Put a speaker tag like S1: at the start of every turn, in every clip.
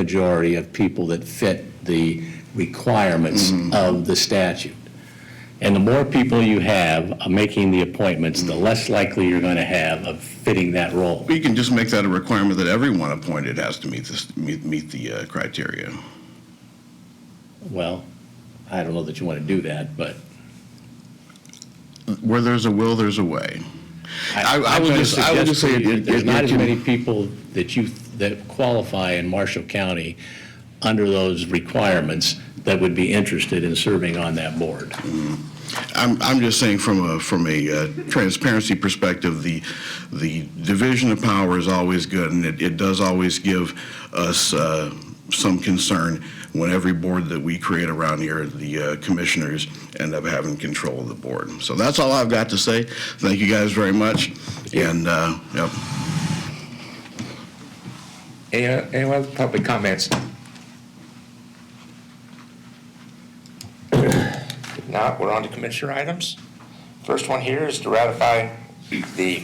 S1: majority of people that fit the requirements
S2: Mm-hmm.
S1: of the statute. And the more people you have uh, making the appointments, the less likely you're going to have of fitting that role.
S2: We can just make that a requirement that everyone appointed has to meet this, meet, meet the uh, criteria.
S1: Well, I don't know that you want to do that, but
S2: Where there's a will, there's a way. I-
S1: I
S2: I
S1: I'm
S2: would
S1: gonna
S2: just- I would
S1: suggest
S2: just say
S1: to you
S2: it-
S1: that There's
S2: it-
S1: not
S2: it
S1: as
S2: can-
S1: many people that you, that qualify in Marshall County under those requirements that would be interested in serving on that board.
S2: I'm, I'm just saying from a, from a uh, transparency perspective, the, the division of power is always good, and it, it does always give us uh, some concern when every board that we create around here, the uh, commissioners end up having control of the board. So that's all I've got to say. Thank you guys very much, and, uh, yep.
S3: Any, any other public comments? If not, we're on to commissioner items. First one here is to ratify the,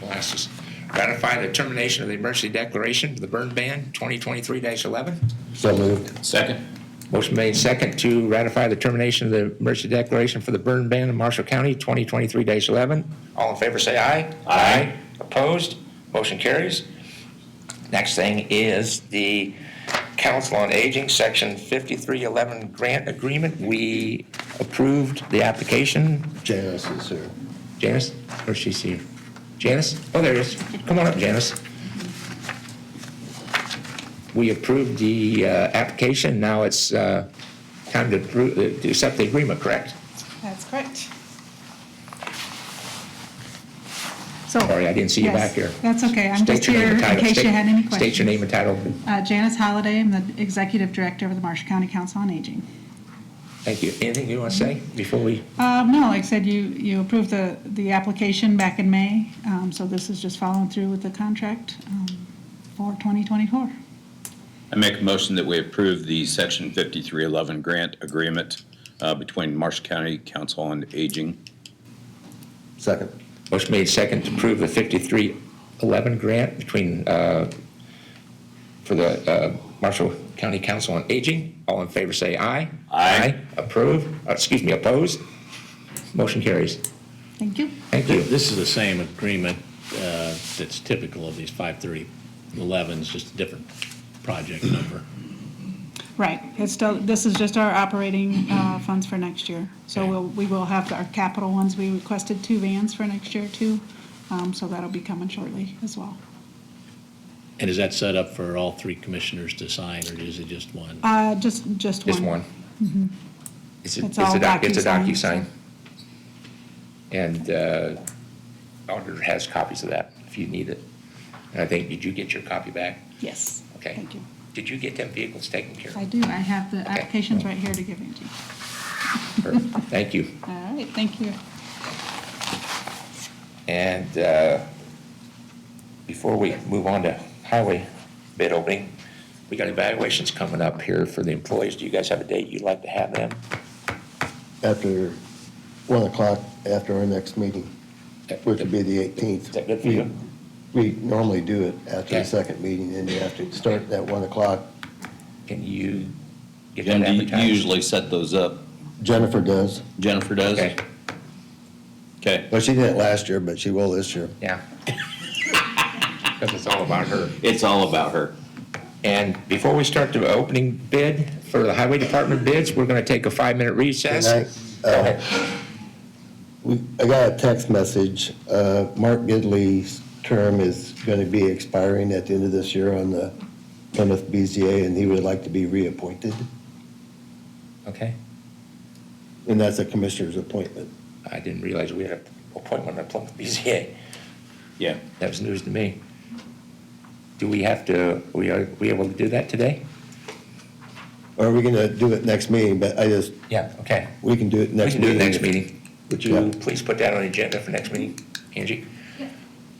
S3: glasses, ratify the termination of the emergency declaration for the burn ban 2023-11.
S4: So moved. Second.
S3: Motion made second to ratify the termination of the emergency declaration for the burn ban in Marshall County 2023-11. All in favor, say aye. Aye. Opposed? Motion carries. Next thing is the Council on Aging, Section 5311 Grant Agreement. We approved the application.
S4: Janice is here.
S3: Janice, where's she here? Janice? Oh, there it is. Come on up, Janice. We approved the uh, application, now it's uh, time to approve, to accept the agreement, correct?
S5: That's correct. So.
S3: Sorry, I didn't see you
S5: Yes,
S3: back here.
S5: That's okay. I'm
S3: State
S5: just
S3: your name
S5: here in
S3: and title.
S5: case you
S3: State-
S5: had any
S3: State your
S5: questions.
S3: name and title.
S5: Uh, Janice Holliday, I'm the Executive Director of the Marshall County Council on Aging.
S3: Thank you. Anything you want to say before we,
S5: Um, no, like I said, you, you approved the, the application back in May, um, so this is just following through with the contract, um, for 2024.
S6: I make a motion that we approve the Section 5311 grant agreement uh, between Marshall County Council on Aging.
S4: Second.
S3: motion made second to approve the 5311 grant between, uh, for the uh, Marshall County Council on Aging. All in favor, say aye. Aye. Approve, Uh, excuse me, opposed? Motion carries.
S5: Thank you.
S3: Thank you.
S1: This is the same agreement uh, that's typical of these 53011s, just a different project number.
S5: Right. It's still, this is just our operating, uh, funds for next year. So
S1: Okay.
S5: we'll, we will have our capital ones. We requested two vans for next year too. Um, so that'll be coming shortly as well.
S1: And is that set up for all three commissioners to sign, or is it just one?
S5: Uh, just, just one. Mm-hmm.
S3: Just one. It's a,
S5: It's
S3: it's
S5: all
S3: a doc, it's a
S5: DocuSign, so-
S3: DocuSign. And uh, auditor has copies of that if you need it. And I think, did you get your copy back?
S5: Yes.
S3: Okay.
S5: Thank you.
S3: Did you get them vehicles taken care
S5: I
S3: of?
S5: do. I have the applications right here to give you.
S3: Perfect. Thank you.
S5: All right, thank you.
S3: And uh, before we move on to highway bid opening, we got evaluations coming up here for the employees. Do you guys have a date you'd like to have them?
S4: After one o'clock, after our next meeting, which would be the eighteenth.
S3: Is that good for you?
S4: We normally do it after
S3: Okay.
S4: the second meeting, and you have to start at one o'clock.
S3: Can you get that
S6: Jim, do
S3: advertised?
S6: you usually set those up?
S4: Jennifer does.
S6: Jennifer does?
S3: Okay,
S6: Okay.
S4: Well, she didn't last year, but she will this year.
S3: yeah. Because it's all about her.
S6: It's all about her.
S3: And before we start the opening bid for the highway department bids, we're going to take a five-minute recess.
S4: Can I-
S3: Go ahead.
S4: Uh, We, I got a text message, uh, Mark Gidley's term is gonna be expiring at the end of this year on the Plymouth BZA, and he would like to be reappointed,
S3: Okay,
S4: and that's a commissioner's appointment.
S3: I didn't realize we had an appointment at Plymouth BZA.
S6: Yeah.
S3: That was news to me. Do we have to, we are, we able to do that today?
S4: Or are we gonna do it next meeting, but I just,
S3: Yeah, okay.
S4: we can do it
S3: We
S4: next
S3: can do
S4: meeting.
S3: it next meeting. Would
S4: Yeah.
S3: you please put that on the agenda for next meeting, Angie?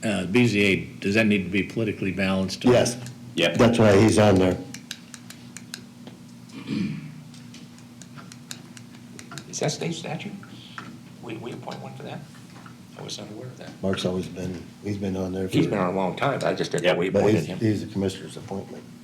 S1: Uh, BZA, does that need to be politically balanced? or-
S4: Yes,
S6: Yep.
S4: that's why he's on there.
S3: Is that state statute? We, we appoint one for that? I was not aware of that.
S4: Mark's always been, he's been on there for.
S3: He's been on a long time, I just didn't know we
S4: But
S3: appointed
S4: he's,
S3: him.
S4: he's a commissioner's appointment.